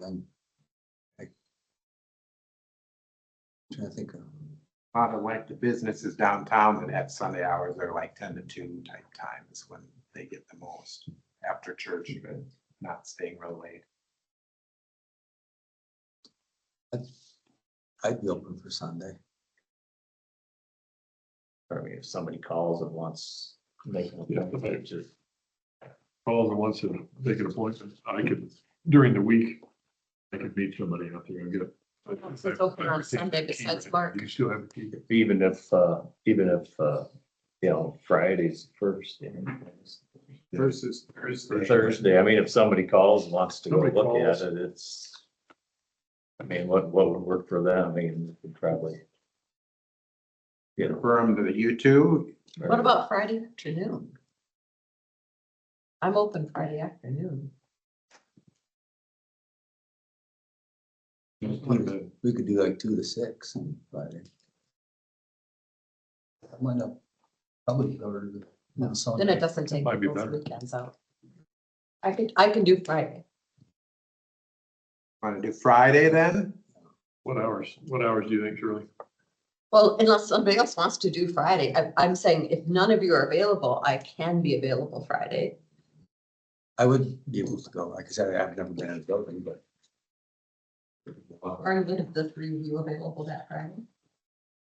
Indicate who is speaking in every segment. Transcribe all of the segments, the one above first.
Speaker 1: then I- Trying to think of,
Speaker 2: A lot of like the businesses downtown that have Sunday hours are like ten to two type times when they get the most after church, but not staying real late.
Speaker 1: I'd- I'd be open for Sunday.
Speaker 3: I mean, if somebody calls and wants to make an
Speaker 4: Yeah,
Speaker 3: appointment, just
Speaker 4: calls and wants to make an appointment, I could, during the week, I could meet somebody out there and get. a-
Speaker 5: It's open on Sunday besides Mark.
Speaker 4: You still have a key.
Speaker 3: even if, uh, even if, uh, you know, Friday's first, you know,
Speaker 2: Versus Thursday.
Speaker 3: Thursday, I mean, if somebody calls and wants to go
Speaker 4: Somebody
Speaker 3: look
Speaker 4: calls.
Speaker 3: at it, it's. I mean, what, what would work for them, I mean, we could probably. You know.
Speaker 2: Confirm to the U two,
Speaker 5: What about Friday afternoon? I'm open Friday afternoon.
Speaker 1: We could do like two to six on Friday. That might not, probably cover the. no,
Speaker 5: Then it
Speaker 1: Sunday.
Speaker 5: doesn't take
Speaker 4: Might be
Speaker 5: those
Speaker 4: better.
Speaker 5: weekends out. I could, I can do Friday.
Speaker 2: wanna do Friday then?
Speaker 4: What hours, what hours do you think, Shirley?
Speaker 5: Well, unless somebody else wants to do Friday, I, I'm saying if none of you are available, I can be available Friday.
Speaker 1: I would be able to go, like I said, I've never been in a building, but.
Speaker 5: Are any of the three of you available that Friday?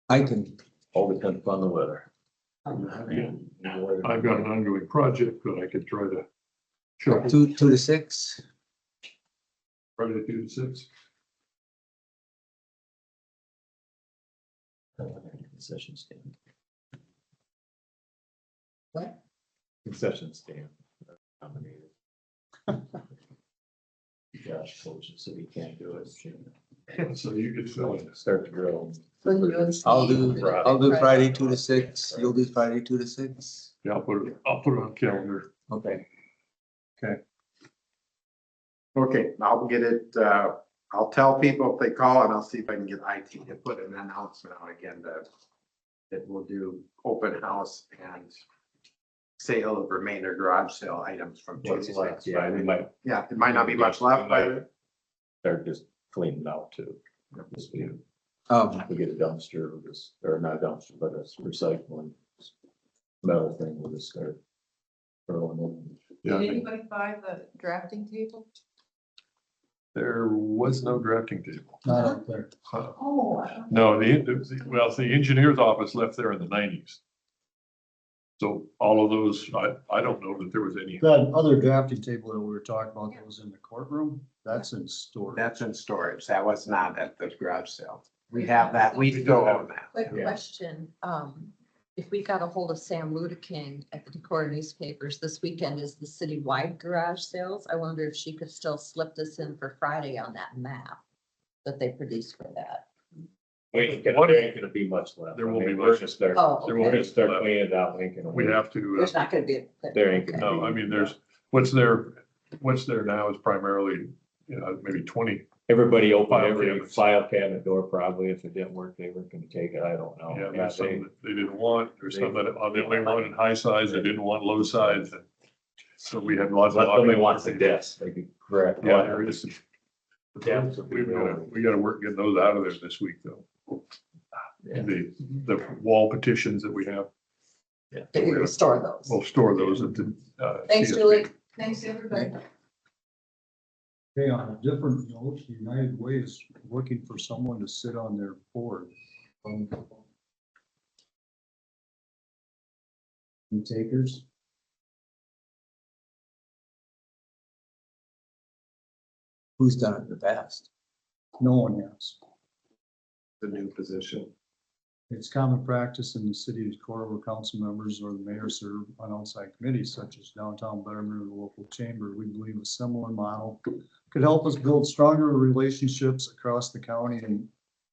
Speaker 1: I can,
Speaker 3: All depends upon the weather.
Speaker 5: Um,
Speaker 4: I've got an ongoing project, but I could try to
Speaker 1: go
Speaker 4: shuffle
Speaker 1: two, two to six,
Speaker 4: Friday through six.
Speaker 3: Concession stand.
Speaker 5: What?
Speaker 3: Concession stand. nominated. Josh coaches, so he can't do it.
Speaker 4: So you could fill it.
Speaker 3: Start the grill.
Speaker 5: So you and Steve
Speaker 1: I'll
Speaker 5: are
Speaker 1: do,
Speaker 5: available
Speaker 1: I'll do Friday, two to six, you'll do Friday, two to six,
Speaker 4: Yeah, I'll put it, I'll put it on calendar.
Speaker 1: okay.
Speaker 2: Okay, I'll get it, uh, I'll tell people if they call and I'll see if I can get IT to put an announcement out again that. That we'll do open house and sale of remainder garage sale items from two to
Speaker 3: What's
Speaker 2: six.
Speaker 3: left, yeah, we might
Speaker 2: Yeah, it might not be much left, but
Speaker 3: start just cleaning out too. Just be-
Speaker 1: Um,
Speaker 3: We get a dumpster, we'll just, or not a dumpster, but a recycling metal thing, we'll just start throwing in.
Speaker 4: Yeah, I
Speaker 6: Did
Speaker 4: think
Speaker 6: anybody buy the drafting table?
Speaker 4: there was no drafting table.
Speaker 1: not up there.
Speaker 4: Huh.
Speaker 6: Oh.
Speaker 4: No, the- the, well, the engineer's office left there in the nineties. So all of those, I, I don't know that there was any.
Speaker 7: That other drafting table that we were talking about that was in the courtroom, that's in storage.
Speaker 2: that's in storage. That was not at the garage sale. We have that, we still own that.
Speaker 5: Quick question, um, if we got a hold of Sam Ludeking at the Decorah newspapers, this weekend is the citywide garage sales. I wonder if she could still slip this in for Friday on that map that they produced for that.
Speaker 3: Ain't gonna there ain't gonna be much left.
Speaker 4: There won't be
Speaker 3: I mean, we're
Speaker 4: much.
Speaker 3: gonna start-
Speaker 5: Oh,
Speaker 4: There
Speaker 3: We're
Speaker 4: won't
Speaker 5: okay.
Speaker 3: gonna start cleaning it out, ain't gonna.
Speaker 4: We have to,
Speaker 5: there's
Speaker 4: uh,
Speaker 5: not gonna be. a-
Speaker 3: There ain't gonna
Speaker 4: no, I mean, there's, what's there, what's there now is primarily, you know, maybe twenty,
Speaker 3: Everybody opened
Speaker 4: File
Speaker 3: every
Speaker 4: cabinets.
Speaker 3: file cabinet door probably. If it didn't work, they weren't gonna take it. I don't know.
Speaker 4: yeah,
Speaker 3: Oh, Yeah,
Speaker 4: there's
Speaker 3: they-
Speaker 4: some that they didn't want, there's some that, uh, they only
Speaker 3: They-
Speaker 4: wanted high size, they didn't want low size. and So we have lots of.
Speaker 3: Unless somebody
Speaker 4: options.
Speaker 3: wants a desk, they could grab.
Speaker 4: Yeah, there is.
Speaker 3: Depths of
Speaker 4: We've gotta,
Speaker 3: the-
Speaker 4: we gotta work, getting those out of there this week though,
Speaker 3: Yeah.
Speaker 4: the, the wall petitions that we have.
Speaker 5: That we restore those.
Speaker 4: We'll store those at the. uh,
Speaker 5: Thanks,
Speaker 4: CSP.
Speaker 5: Julie.
Speaker 6: Thanks, everybody.
Speaker 7: Hey, on a different note, United Way is looking for someone to sit on their board. Um, Any takers?
Speaker 1: Who's done it the best?
Speaker 7: No one has.
Speaker 2: The new position.
Speaker 7: It's common practice in the city of Decorah where council members or the mayor serve on outside committees such as downtown betterment or the local chamber. We believe a similar model could help us build stronger relationships across the county and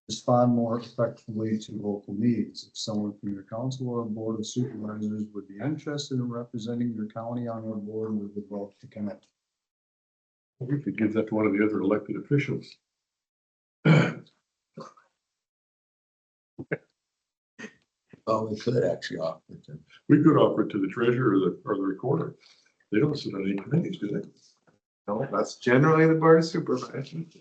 Speaker 7: respond more effectively to local needs. If someone from your council or board of supervisors would be interested in representing your county on our board, we would love to connect.
Speaker 4: We could give that to one of the other elected officials.
Speaker 1: Well, we could actually offer it to
Speaker 4: We could offer it to the treasurer or the, or the recorder. They don't sit on any committees, do they?
Speaker 2: No, that's generally the board of supervisors.